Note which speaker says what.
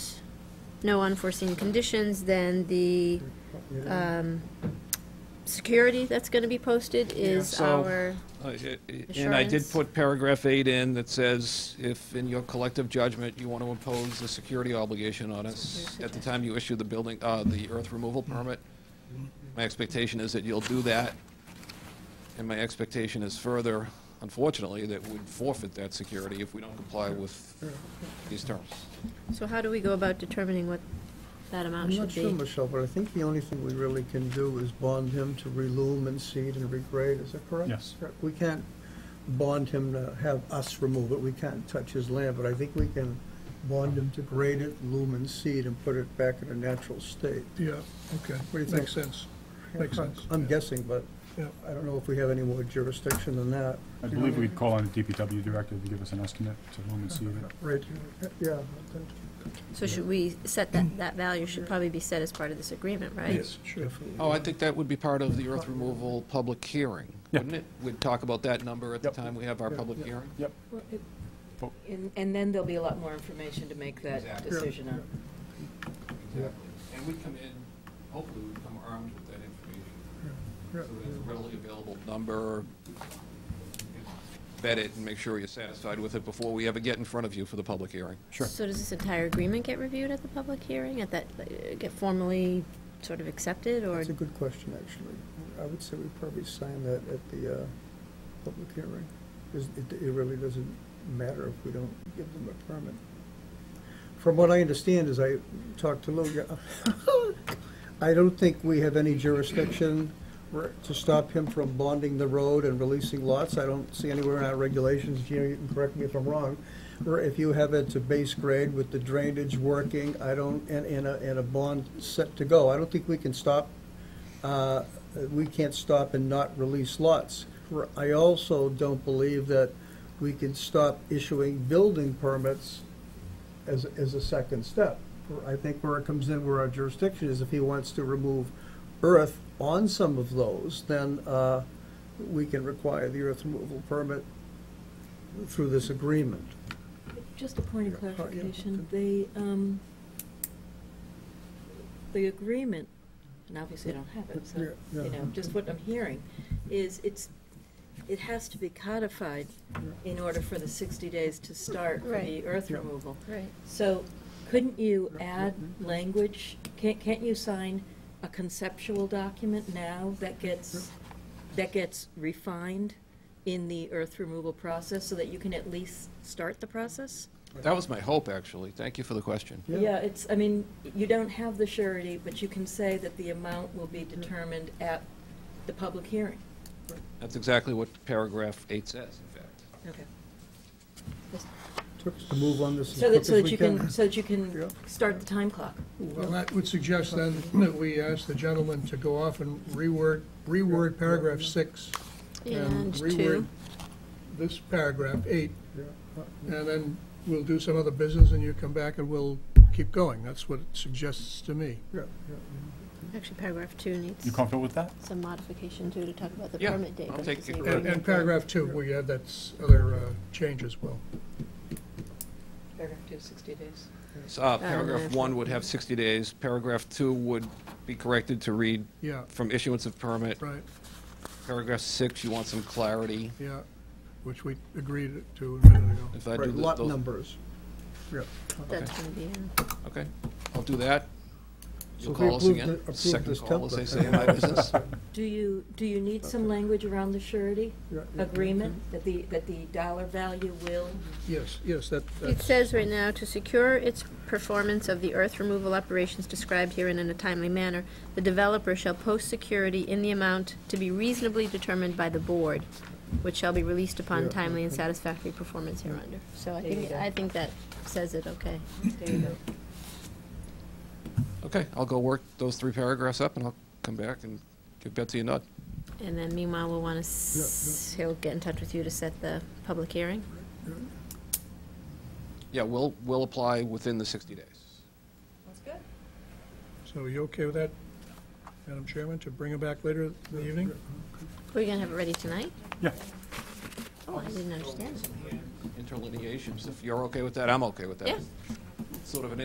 Speaker 1: no unforeseen conditions, then the um, security that's going to be posted is
Speaker 2: Yeah. So-
Speaker 1: our,
Speaker 2: Uh, i- i- And I did
Speaker 1: Assurance.
Speaker 2: put paragraph eight in that says, if in your collective judgment, you want to impose the security obligation on us at the time you issue the building, uh, the earth removal permit, my expectation is that you'll do that. And my expectation is further, unfortunately, that we'd forfeit that security if we don't comply with these terms.
Speaker 1: so how do we go about determining what that amount
Speaker 3: I'm not
Speaker 1: should
Speaker 3: sure,
Speaker 1: be?
Speaker 3: Michelle, but I think the only thing we really can do is bond him to relume and seed and regrade, is that correct?
Speaker 4: Yes.
Speaker 3: We can't bond him to have us remove it, we can't touch his land, but I think we can bond him to grade it, lume and seed, and put it back in a natural state.
Speaker 5: Yeah, okay,
Speaker 3: What do you think?
Speaker 5: makes sense, makes sense.
Speaker 3: I'm guessing, but
Speaker 5: Yeah.
Speaker 3: I don't know if we have any more jurisdiction than that.
Speaker 4: I believe we'd call on the DPW director to give us an estimate to whom and see it.
Speaker 3: Right, yeah.
Speaker 1: So should we set that, that value should probably be set as part of this agreement, right?
Speaker 5: Yes, sure.
Speaker 2: Oh, I think that would be part of the earth removal public hearing,
Speaker 4: Yeah.
Speaker 2: wouldn't it? We'd talk about that number at the
Speaker 4: Yep.
Speaker 2: time we have our
Speaker 3: Yeah,
Speaker 2: public
Speaker 3: yeah.
Speaker 2: hearing.
Speaker 6: Well, it-
Speaker 4: Oh.
Speaker 6: And, and then there'll be a lot more information to make that
Speaker 2: Exactly.
Speaker 6: decision on.
Speaker 2: Exactly. And we come in, hopefully we come armed with that information. So there's a readily available number, vet it and make sure you're satisfied with it before we ever get in front of you for the public hearing.
Speaker 4: Sure.
Speaker 1: So does this entire agreement get reviewed at the public hearing, at that, uh, get formally sort of accepted, or
Speaker 3: That's a good question, actually. I would say we probably sign that at the uh, public hearing. 'cause It it really doesn't matter if we don't give them a permit. From what I understand, as I talked to Lou, I don't think we have any jurisdiction to stop him from bonding the road and releasing lots. I don't see anywhere in our regulations, Gina, you can correct me if I'm wrong, where if you have it to base grade with the drainage working, I don't, and, and a, and a bond set to go, I don't think we can stop, uh, we can't stop and not release lots. I also don't believe that we can stop issuing building permits as, as a second step. I think where it comes in, where our jurisdiction is, if he wants to remove earth on some of those, then uh, we can require the earth removal permit through this agreement.
Speaker 6: Just a point of
Speaker 3: Yeah.
Speaker 6: clarification, the, um, the agreement, and obviously I don't have it, so,
Speaker 3: Yeah,
Speaker 6: you
Speaker 3: yeah.
Speaker 6: know, just what I'm hearing, is it's, it has to be codified in order for the 60 days to start for
Speaker 1: Right.
Speaker 6: the earth
Speaker 3: Yeah.
Speaker 6: removal.
Speaker 1: Right.
Speaker 6: So couldn't you add language? Can't, can't you sign a conceptual document now that gets, that gets refined in the earth removal process so that you can at least start the process?
Speaker 2: That was my hope, actually. Thank you for the question.
Speaker 3: Yeah.
Speaker 6: Yeah, it's, I mean, you don't have the surety, but you can say that the amount will be determined at the public hearing.
Speaker 2: That's exactly what paragraph eight says, in fact.
Speaker 6: Okay.
Speaker 3: Took us to move on this as
Speaker 6: So
Speaker 3: quick
Speaker 6: that,
Speaker 3: as
Speaker 6: so that
Speaker 3: we
Speaker 6: you
Speaker 3: can.
Speaker 6: can, so that you
Speaker 3: Yeah.
Speaker 6: can start the time clock.
Speaker 5: Well, that would suggest then that we ask the gentleman to go off and reword, reword paragraph six.
Speaker 1: And
Speaker 5: reword
Speaker 1: two,
Speaker 5: This paragraph eight,
Speaker 3: Yeah.
Speaker 5: and then we'll do some other business and you come back and we'll keep going. That's what it suggests to me.
Speaker 3: Yeah, yeah.
Speaker 1: actually paragraph two needs
Speaker 4: You comfortable with that?
Speaker 1: some modification too, to talk about the
Speaker 2: Yeah,
Speaker 1: permit date.
Speaker 2: I'll
Speaker 1: versus
Speaker 2: take
Speaker 1: the
Speaker 2: it.
Speaker 5: And, and
Speaker 1: agreement.
Speaker 5: paragraph two, we add that s- other uh, change as well.
Speaker 6: Paragraph two, 60 days.
Speaker 2: So, uh,
Speaker 1: Um,
Speaker 2: Paragraph one would have 60 days. Paragraph two would be corrected to read
Speaker 5: Yeah,
Speaker 2: from issuance of permit.
Speaker 5: right,
Speaker 2: Paragraph six, you want some clarity.
Speaker 5: yeah, which we agreed to a minute ago.
Speaker 2: If I do
Speaker 3: Right,
Speaker 2: th-
Speaker 3: lot
Speaker 2: those-
Speaker 3: numbers. Yeah.
Speaker 1: That's gonna be in.
Speaker 2: Okay, I'll do that.
Speaker 3: So
Speaker 2: You'll
Speaker 3: if we
Speaker 2: call us
Speaker 3: approve the-
Speaker 2: again.
Speaker 3: approve
Speaker 2: Second
Speaker 3: this
Speaker 2: call, as they
Speaker 3: template.
Speaker 2: say in my business.
Speaker 6: Do you, do you need some language around the surety
Speaker 3: Yeah, yeah.
Speaker 6: agreement, that the, that the dollar value will?
Speaker 5: Yes, yes, that,
Speaker 1: It
Speaker 5: that's.
Speaker 1: says right now, to secure its performance of the earth removal operations described herein in a timely manner, the developer shall post security in the amount to be reasonably determined by the board, which shall be released upon
Speaker 3: Yeah,
Speaker 1: timely and
Speaker 3: okay.
Speaker 1: satisfactory performance hereunder. So I
Speaker 6: There you
Speaker 1: think,
Speaker 6: go.
Speaker 1: I think that says it okay.
Speaker 6: There you go.
Speaker 2: Okay, I'll go work those three paragraphs up, and I'll come back and give Betsy a nod.
Speaker 1: And then meanwhile, we'll wanna, s- he'll get in touch with you to set the public hearing.
Speaker 2: Yeah, we'll, we'll apply within the 60 days.
Speaker 6: That's good.
Speaker 5: So are you okay with that, Madam Chairman, to bring it back later in the evening?
Speaker 1: We're gonna have it ready tonight?
Speaker 4: Yeah.
Speaker 1: Oh, I didn't understand that.
Speaker 2: Interlineations, if you're okay with that, I'm okay with that.
Speaker 1: Yeah.
Speaker 2: Sort of an